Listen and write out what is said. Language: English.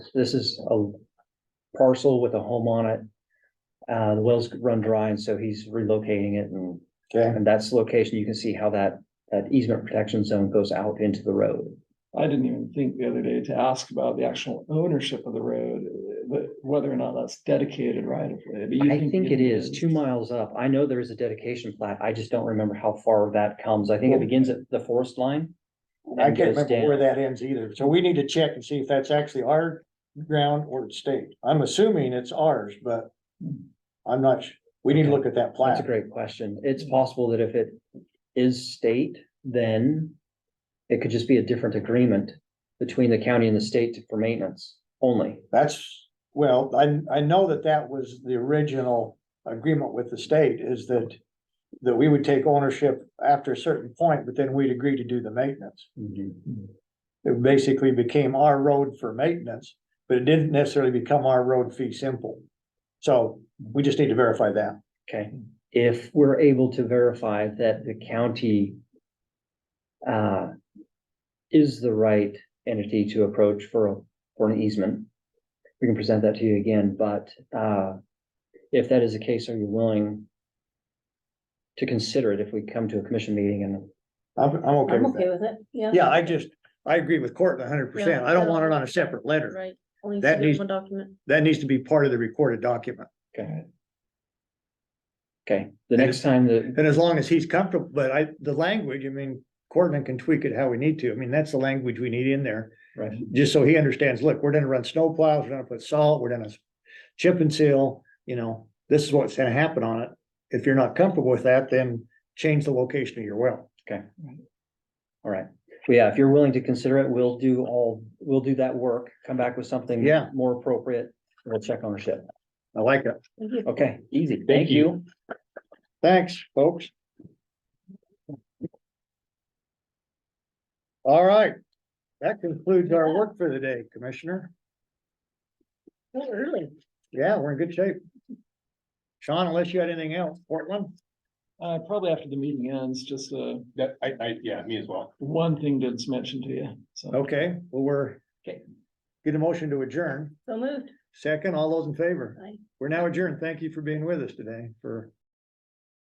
this is a parcel with a home on it. Uh, the wells run dry and so he's relocating it and, Okay, and that's the location. You can see how that, that easement protection zone goes out into the road. I didn't even think the other day to ask about the actual ownership of the road, uh, but whether or not that's dedicated right of way. but you I think it is two miles up. I know there is a dedication plat. I just don't remember how far that comes. I think it begins at the forest line. I and can't goes remember where down. that ends either, so we need to check and see if that's actually our ground or the state. I'm assuming it's ours, but I'm not, su- we need to look at that That's a plat. great question. It's possible that if it is state, then it could just be a different agreement between the county and the state for maintenance only. That's, well, I, I know that that was the original agreement with the state is that that we would take ownership after a certain point, but then we'd agree to do the maintenance. It basically became our road for maintenance, but it didn't necessarily become our road fee simple. So we just need to verify that. Okay, if we're able to verify that the county uh, is the right entity to approach for, a- for an easement, we can present that to you again, but uh, if that is the case, are you willing to consider it if we come to a commission meeting and I'm, I'm okay I'm with okay that. with it, yeah. Yeah, I just, I agree with Court hundred percent. I don't want it on a separate letter. Right. Only That submit needs- One document. That needs to be part of the recorded document. Okay. Okay, the next time that, And as long as he's comfortable, but I, the language, I mean, Courtland can tweak it how we need to. I mean, that's the language we need in there. right, Just so he understands, look, we're gonna run snow plows, we're gonna put salt, we're gonna chip and seal, you know, this is what's gonna happen on it. If you're not comfortable with that, then change the location of your well. all right. Well, yeah, if you're willing to consider it, we'll do all, we'll do that work, come back with something Yeah. more appropriate. We'll check ownership. I like it. Thank you. Okay, easy. Thank you. Thanks, folks. All right, that concludes our work for the day, Commissioner. So early. Yeah, we're in good shape. Sean, unless you had anything else, Portland? Uh, probably after the meeting ends, just, uh, That, I, I, yeah, me as well. one thing Did's mentioned to you, so. Okay, well, we're. Okay. Get a motion to adjourn. So moved. Second, all those in favor? Aye. We're now adjourned. Thank you for being with us today for